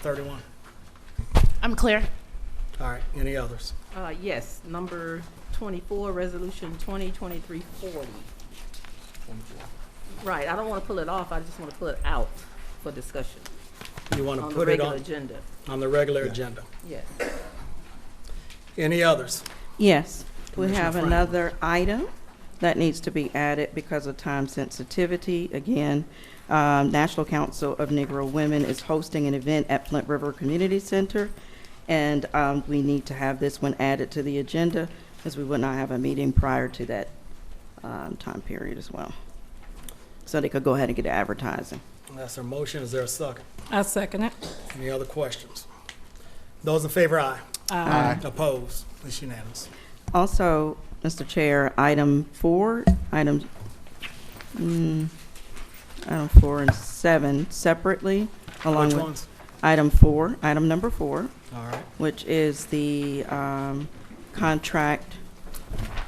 31. I'm clear. All right, any others? Uh, yes, number twenty-four, resolution twenty twenty-three forty. Right, I don't wanna pull it off, I just wanna pull it out for discussion You want on to the put it regular on, agenda, on the regular agenda. yes. Any others? Yes, we Commissioner have Franklin. another item that needs to be added because of time sensitivity. Again, um, National Council of Negro Women is hosting an event at Flint River Community Center, and um, we need to have this one added to the agenda because we would not have a meeting prior to that um, time period as well. So they could go ahead and get advertising. That's our motion, is there a second? I second it. Any other questions? Those in favor, aye. Aye. Opposed? It's unanimous. Also, Mr. Chair, item four, item, mm, item four and seven separately, along Which with ones? item four, item number four, All right, which is the um, contract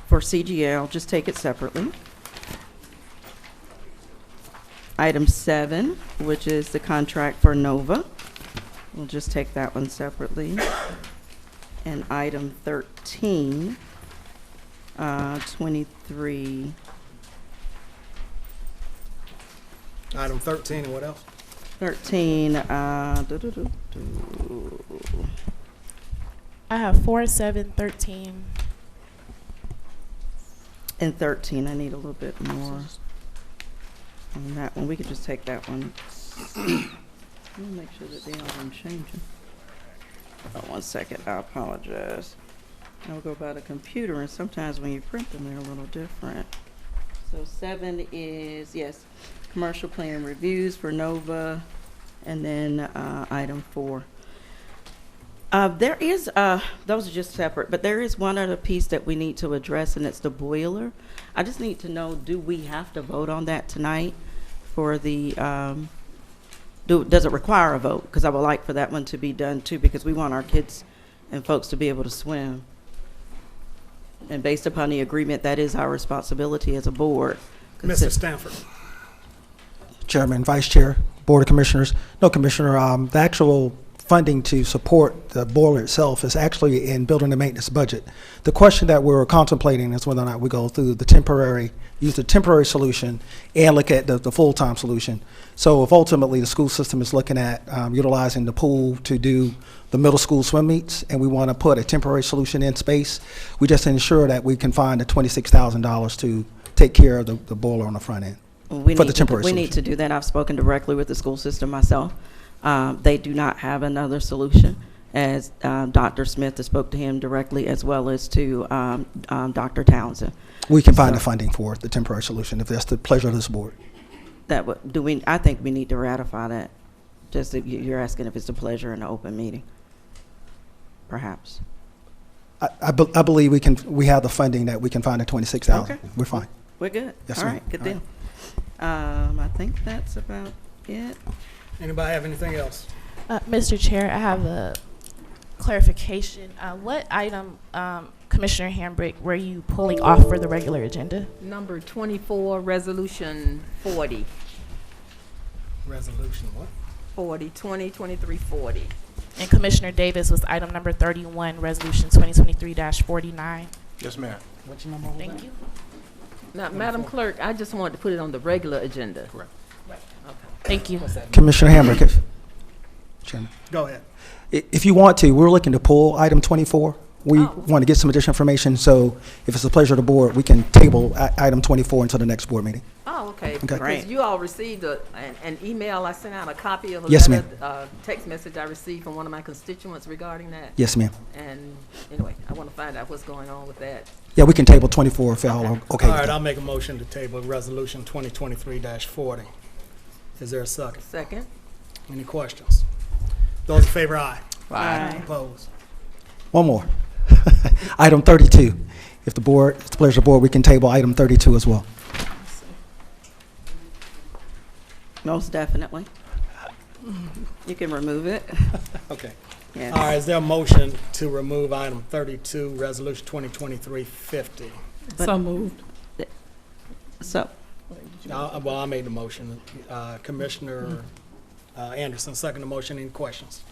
for CGL, just take it separately. Item seven, which is the contract for Nova, we'll just take that one separately. And item thirteen, uh, twenty-three, item 13, and what else? thirteen, uh, doo-doo-doo-doo. I have four, seven, thirteen. And thirteen, I need a little bit more on that one. We could just take that one. Let me make sure that they aren't changing. Oh, one second, I apologize. I'll go by the computer and sometimes when you print them, they're a little different. So seven is, yes, commercial plan reviews for Nova, and then, uh, item four. Uh, there is, uh, those are just separate, but there is one other piece that we need to address, and it's the boiler. I just need to know, do we have to vote on that tonight for the, um, do, does it require a vote? Because I would like for that one to be done too, because we want our kids and folks to be able to swim. And based upon the agreement, that is our responsibility as a board. Mr. Stanford, Chairman, Vice Chair, Board of Commissioners. No, Commissioner, um, the actual funding to support the boiler itself is actually in building and maintenance budget. The question that we're contemplating is whether or not we go through the temporary, use the temporary solution and look at the, the full-time solution. So if ultimately the school system is looking at, um, utilizing the pool to do the middle school swim meets and we want to put a temporary solution in space, we just ensure that we can find the twenty-six thousand dollars to take care of the, the boiler on the front end. We for need the to- temporary We need to do that. I've spoken directly with the school system myself. Um, They do not have another solution, as uh, Dr. Smith spoke to him directly, as well as to um, um, Dr. Townsend. We can find the So- funding for the temporary solution if that's the pleasure of this board. That would, do we, I think we need to ratify that, just if you- you're asking if it's a pleasure in an open meeting, perhaps. I, I, be- I believe we can, we have the funding that we can find at twenty-six thousand. Okay. We're fine. We're good. Yes, All ma'am. right, good All right. deal. Um, I think that's about it. anybody have anything else? Uh, Mr. Chair, I have a clarification. Uh, what item, um, Commissioner Hambrick, were you pulling off for the regular agenda? Number twenty-four, resolution forty, Resolution, what? forty, twenty twenty-three forty. And Commissioner Davis was item number thirty-one, resolution twenty twenty-three forty-nine. Yes, ma'am. Which number was Thank you. Now, Madam Clerk, I just wanted to put it on the regular agenda. Correct. Thank you. Commissioner Hamrick, if, Chairman, Go ahead. i- if you want to, we're looking to pull item twenty-four. We Oh. want to get some additional information, so if it's the pleasure of the board, we can table i- item twenty-four until the next board meeting. Oh, okay, Right. because you all received a, an, an email, I sent out a copy of a Yes, letter, uh, text message I received from one of my constituents regarding that. Yes, ma'am. And anyway, I want to find out what's going on with that. Yeah, we can table twenty-four if y'all are okay All with right, that. I'll make a motion to table Resolution 2023-40. Is there a second? Second, Any questions? Those in favor, aye. Opposed? One more. Item thirty-two. If the board, if it's the pleasure of the board, we can table item thirty-two as well. Most definitely. You can remove it. Okay. Yes. All right, is there a motion to remove item 32, Resolution 2023-50? So moved. So, Uh, Well, I made the motion. Uh, Commissioner uh, Anderson, second the motion. Any questions?